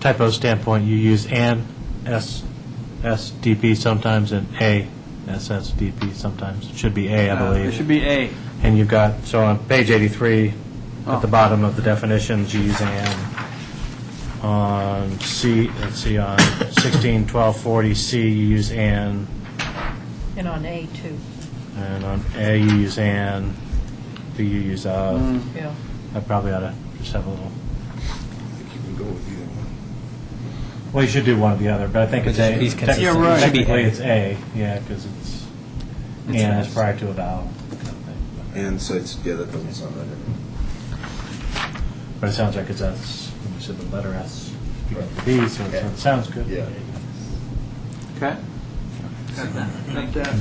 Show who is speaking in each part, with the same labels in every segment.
Speaker 1: typo standpoint, you use an SSDP sometimes and a SSDP sometimes. It should be a, I
Speaker 2: Uh, It
Speaker 1: believe.
Speaker 2: should be A.
Speaker 1: And you've got, so on page 83, at the
Speaker 2: Oh.
Speaker 1: bottom of the definitions, you use an. On C, let's see, on 16, 12, 40, C, you use an,
Speaker 3: And on A too,
Speaker 1: and on A, you use an, B, you use
Speaker 2: Mm.
Speaker 1: of.
Speaker 3: yeah.
Speaker 1: I probably ought to just have a little,
Speaker 4: You can go with either one.
Speaker 1: well, you should do one or the other, but I think it's A.
Speaker 5: He's
Speaker 1: Technically-
Speaker 5: consistent.
Speaker 2: Yeah, right.
Speaker 1: Technically, it's A, yeah, because it's, and
Speaker 5: It's
Speaker 1: it's
Speaker 5: fast.
Speaker 1: prior to a vowel. kind of thing.
Speaker 4: And so it's, yeah, that doesn't sound right.
Speaker 1: But it sounds like it's S, when you said the letter S, you got the B, so it sounds good.
Speaker 4: Yeah.
Speaker 2: Okay? Like that.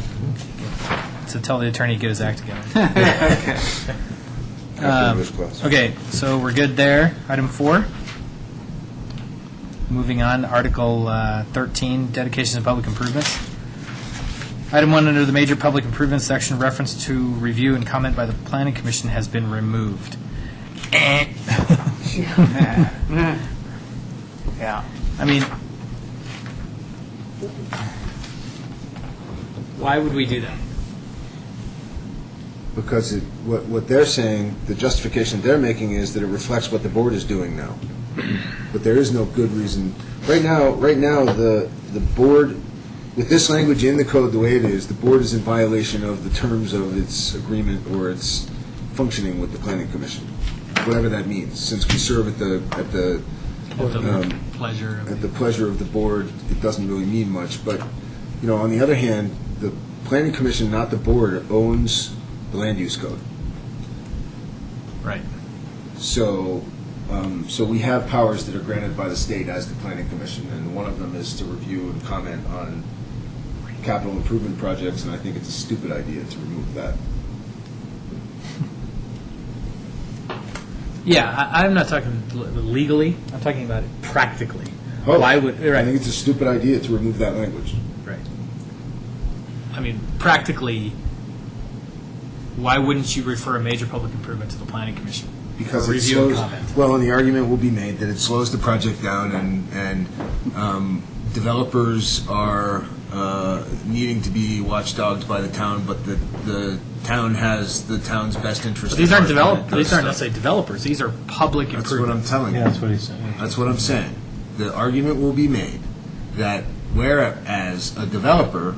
Speaker 5: So tell the attorney to get his act together.
Speaker 2: Okay.
Speaker 4: After
Speaker 5: Um,
Speaker 4: English class.
Speaker 5: Okay, so we're good there. Item four. Moving on, Article uh, 13, dedications and public improvements. Item one, under the major public improvements section, reference to review and comment by the planning commission has been removed. Eh.
Speaker 2: Yeah.
Speaker 5: I mean, why would we do that?
Speaker 4: Because it, what, what they're saying, the justification they're making is that it reflects what the board is doing now. But there is no good reason. Right now, right now, the, the board, with this language in the code the way it is, the board is in violation of the terms of its agreement or its functioning with the planning commission, whatever that means, since we serve at the, at the, um,
Speaker 5: Pleasure
Speaker 4: at the pleasure of the board, it doesn't really mean much, but, you know, on the other hand, the planning commission, not the board, owns the land use code.
Speaker 5: Right.
Speaker 4: So, um, so we have powers that are granted by the state as the planning commission, and one of them is to review and comment on capital improvement projects, and I think it's a stupid idea to remove that.
Speaker 5: Yeah, I, I'm not talking l- legally. I'm talking about it practically.
Speaker 4: Oh.
Speaker 5: Why would
Speaker 4: I
Speaker 5: right?
Speaker 4: think it's a stupid idea to remove that language.
Speaker 5: Right. I mean, practically, why wouldn't you refer a major public improvement to the planning commission?
Speaker 4: Because
Speaker 5: For
Speaker 4: it
Speaker 5: review and
Speaker 4: slows,
Speaker 5: comment.
Speaker 4: well, and the argument will be made that it slows the project down and, and um, developers are uh, needing to be watchdogged by the town, but the, the town has the town's best interest.
Speaker 5: But these
Speaker 4: at
Speaker 5: aren't
Speaker 4: heart when it
Speaker 5: develop,
Speaker 4: does
Speaker 5: these aren't
Speaker 4: stuff.
Speaker 5: necessarily developers, these are public
Speaker 4: That's what I'm
Speaker 5: improvements.
Speaker 4: telling
Speaker 1: Yeah,
Speaker 4: you.
Speaker 1: that's what he's saying.
Speaker 4: That's what I'm saying. The argument will be made that whereas a developer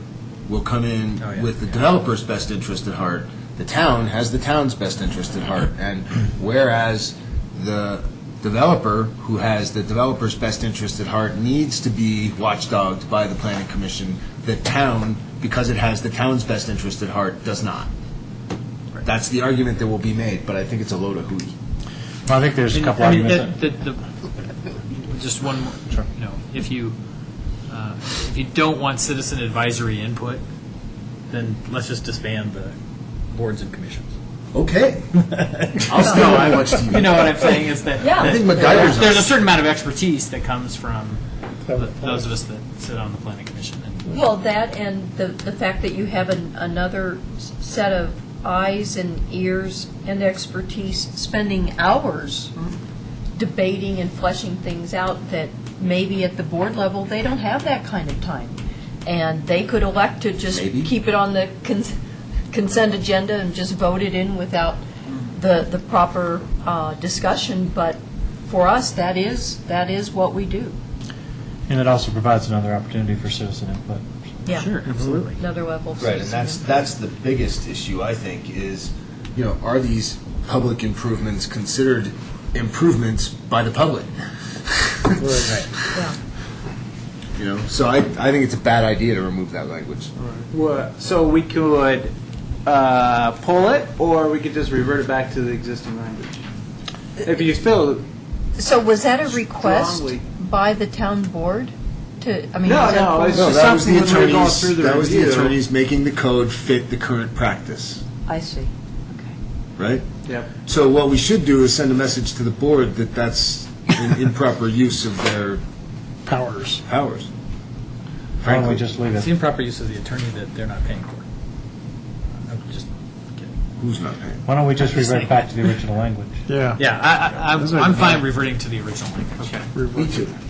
Speaker 4: will come in
Speaker 5: Oh, yeah,
Speaker 4: with the
Speaker 5: yeah.
Speaker 4: developer's best interest at heart, the town has the town's best interest at heart. And whereas the developer who has the developer's best interest at heart needs to be watchdogged by the planning commission, the town, because it has the town's best interest at heart, does not.
Speaker 5: Right.
Speaker 4: That's the argument that will be made, but I think it's a load of hooey.
Speaker 1: I think there's a couple
Speaker 5: I mean,
Speaker 1: arguments.
Speaker 5: that- that- the- Just one, more- you know, if you, uh, if you don't want citizen advisory input, then let's just disband the boards and commissions.
Speaker 4: Okay. I'll still I watch TV.
Speaker 5: You know what I'm saying, is that.
Speaker 3: Yeah.
Speaker 4: I
Speaker 5: that-
Speaker 4: think MacGyver's
Speaker 5: There's
Speaker 4: on.
Speaker 5: a certain amount of expertise that comes from th- those of us that sit on the planning commission. and-
Speaker 3: Well, that and the, the fact that you have an, another s- set of eyes and ears and expertise spending hours debating and fleshing things out that maybe at the board level, they don't have that kind of time. And they could elect to just
Speaker 4: Maybe.
Speaker 3: keep it on the cons- consent agenda and just vote it in without the, the proper uh, discussion, but for us, that is, that is what we do.
Speaker 1: And it also provides another opportunity for citizen input.
Speaker 3: Yeah.
Speaker 5: Sure, absolutely.
Speaker 3: Another level. of
Speaker 4: Right, and that's,
Speaker 3: citizen.
Speaker 4: that's the biggest issue, I think, is, you know, are these public improvements considered improvements by the public?
Speaker 3: Yeah.
Speaker 4: You know, so I, I think it's a bad idea to remove that language.
Speaker 2: What- So we could uh, pull it, or we could just revert it back to the existing language. If you feel,
Speaker 3: So was that a request
Speaker 2: Strongly.
Speaker 3: by the town board to, I mean?
Speaker 2: No,
Speaker 3: was that
Speaker 2: no,
Speaker 3: board-
Speaker 2: it's
Speaker 4: No,
Speaker 2: just-
Speaker 4: that was the
Speaker 2: something when we were going through
Speaker 4: attorneys,
Speaker 2: the
Speaker 4: that was the
Speaker 2: review.
Speaker 4: attorneys making the code fit the current practice,
Speaker 3: I see, okay.
Speaker 4: right?
Speaker 2: yep.
Speaker 4: So what we should do is send a message to the board that that's an improper use of their
Speaker 1: Powers.
Speaker 4: powers.
Speaker 1: Why don't we
Speaker 4: Frankly,
Speaker 1: just leave
Speaker 5: It's
Speaker 1: it?
Speaker 5: the improper use of the attorney that they're not paying for. I'm just kidding.
Speaker 4: who's not paying?
Speaker 1: Why don't we just
Speaker 5: Just
Speaker 1: revert
Speaker 5: like-
Speaker 1: back to the original language?
Speaker 6: Yeah.
Speaker 5: Yeah, I, I, I'm- I'm fine reverting to the original language.
Speaker 4: Me too.